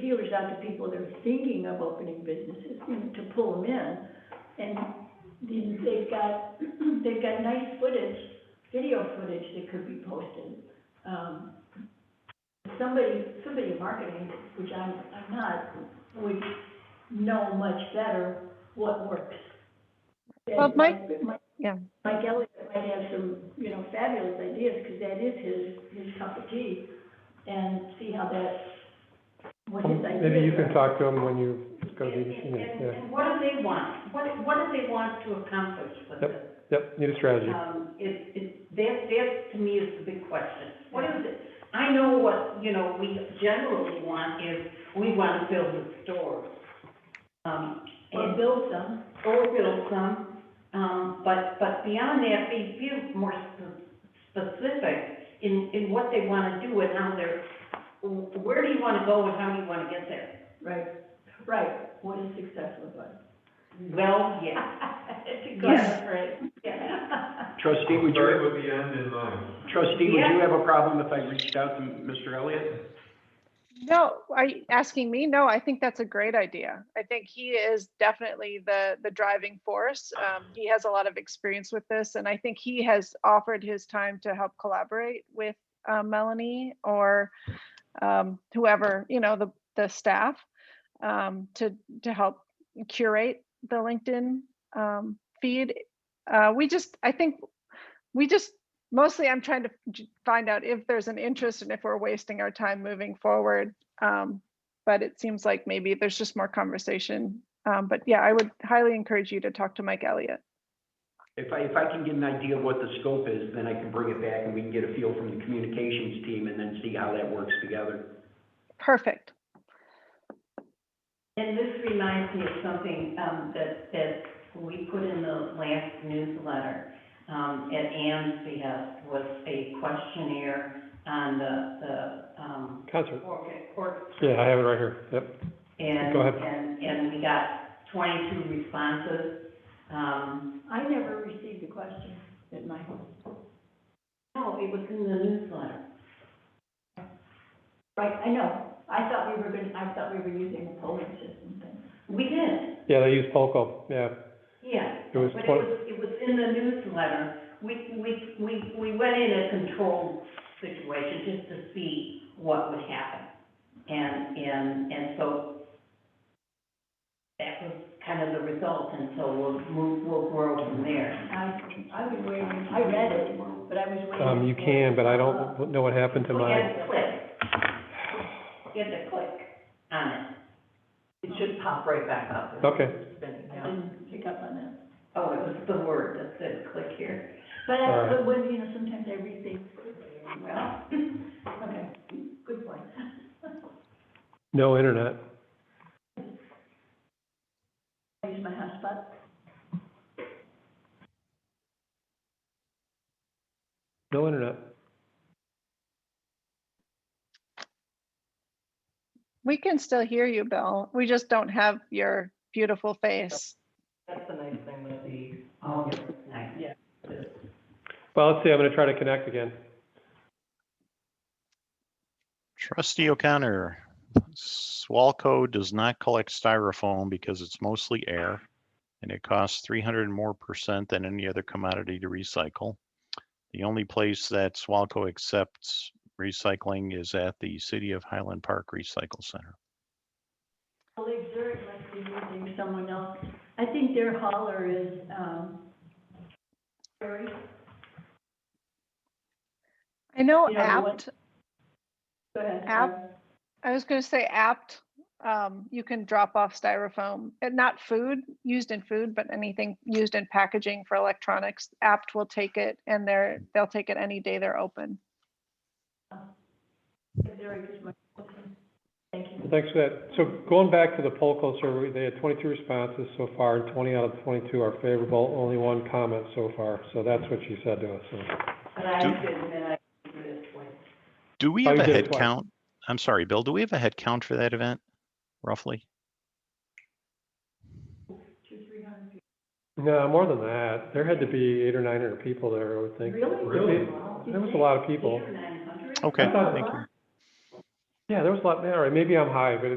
feelers out to people that are thinking of opening businesses and to pull them in. And then they've got, they've got nice footage, video footage that could be posted. Um, somebody, somebody in marketing, which I'm, I'm not, would know much better what works. Well, And Mike- Mike- yeah. Mike Elliott might have some, you know, fabulous ideas, because that is his, his cup of tea, and see how that, what his ideas are. Maybe you can talk to them when you, it's gonna And, be, and, and- yeah, and what do they want? What, what do they want to accomplish with Yep. this? yep, need a strategy. Uh, Um, it, it, that, that to me is the big question. What is it? I know what, you know, we generally want is, we want to build a store. Um, Or and, build some, or build some, um, but, but beyond that, be, be more spe- specific in, in what they want to do and how they're, where do you want to go and how do you want to get there? right, right, what is success look like? Well, yeah. It's a Yeah. good, right, yeah. Trustee, would you, Start with the end in mind. trustee, would Yeah. you have a problem if I reached out to Mr. Elliott? No, are you asking me? No, I think that's a great idea. I think he is definitely the, the driving force. Um, he has a lot of experience with this and I think he has offered his time to help collaborate with, uh, Melanie or, um, whoever, you know, the, the staff, um, to, to help curate the LinkedIn, um, feed. Uh, we just, I think, we just mostly I'm trying to j- find out if there's an interest and if we're wasting our time moving forward. Um, but it seems like maybe there's just more conversation. Um, but yeah, I would highly encourage you to talk to Mike Elliott. If I, if I can get an idea of what the scope is, then I can bring it back and we can get a feel from the communications team and then see how that works together. Perfect. And this reminds me of something, um, that, that we put in the last newsletter, um, at Ann's behest, was a questionnaire on the, the, um, Concert, orchid, or. yeah, I have it right here, yep, And, go ahead. and, and we got twenty-two responses, um, I never received a question at my home, no, it was in the newsletter. right, I know, I thought we were gonna, I thought we were using a polling system thing. We did, yeah, they use Polko, yeah, yeah. it was, But it twen- was, it was in the newsletter. We, we, we, we went in a controlled situation just to see what would happen. And, and, and so that was kind of the result, and so we'll move, we'll grow from there. I, I was waiting, I read it, but I was waiting. um, you for- can, but I don't know what happened to We my, had to click. You had to click on it. It should pop right back up. okay, I didn't pick up on that. Oh, it was the word that said click here. But, All I- right. but when, you know, sometimes I read things, well, okay, good point. no internet. I use my hotspot. No internet. We can still hear you, Bill. We just don't have your beautiful face. That's the nice thing with the. Oh, yeah, nice. Well, let's see, I'm gonna try to connect again. Trustee O'Connor, Swalco does not collect styrofoam because it's mostly air and it costs three hundred more percent than any other commodity to recycle. The only place that Swalco accepts recycling is at the City of Highland Park Recycle Center. Well, Exert must be using someone else. I think their hauler is, um, Barry. I know You know what? apt, Go ahead. App. I was going to say apt. Um, you can drop off styrofoam and not food used in food, but anything used in packaging for electronics. Apt will take it and they're, they'll take it any day they're open. Barry is my, thank you. Thanks for that. So going back to the Polko survey, they had twenty-two responses so far, and twenty out of twenty-two are favorable, only one comment so far, so that's what she said to us, so. But I Do- did, and then I did it twice. Do we Oh, have you a did it head twice. count? I'm sorry, Bill, do we have a head count for that event roughly? Two, three hundred people. No, more than that, there had to be eight or nine hundred people there, I would think. Really? Really? Wow. There was a lot of people. Oh, Eight or nine hundred? Okay, thought- thank you. Yeah, there was a lot, all right, maybe I'm high, but